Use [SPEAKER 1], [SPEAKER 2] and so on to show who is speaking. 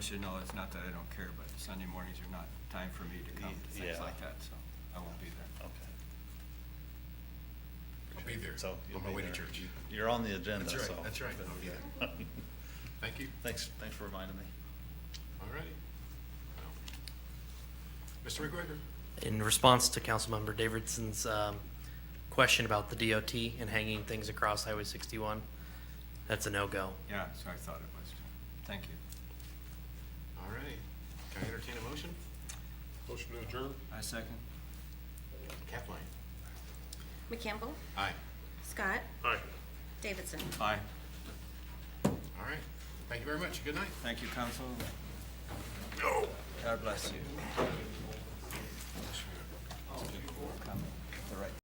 [SPEAKER 1] should know, it's not that I don't care, but Sunday mornings are not time for me to come to things
[SPEAKER 2] Yeah.
[SPEAKER 1] like that, so I won't be there.
[SPEAKER 2] Okay.
[SPEAKER 3] I'll be there,
[SPEAKER 2] So you'll
[SPEAKER 3] on my
[SPEAKER 2] be
[SPEAKER 3] way to
[SPEAKER 2] there.
[SPEAKER 3] church.
[SPEAKER 2] You're on the agenda,
[SPEAKER 3] That's
[SPEAKER 2] so.
[SPEAKER 3] right, that's right, I'll be there. Thank you.
[SPEAKER 2] Thanks, thanks for reminding me.
[SPEAKER 3] All righty. Well, Mr. McGregor?
[SPEAKER 4] In response to Councilmember Davidson's um, question about the DOT and hanging things across Highway 61, that's a no-go.
[SPEAKER 1] Yeah, so I thought it was, too. Thank you.
[SPEAKER 3] All right. Can I entertain a motion?
[SPEAKER 5] Motion to adjourn?
[SPEAKER 1] I second.
[SPEAKER 3] Kathleen?
[SPEAKER 6] McCampbell,
[SPEAKER 3] Aye.
[SPEAKER 6] Scott,
[SPEAKER 5] Aye.
[SPEAKER 6] Davidson.
[SPEAKER 1] Aye.
[SPEAKER 3] All right. Thank you very much. Good night.
[SPEAKER 1] Thank you, council. God bless you.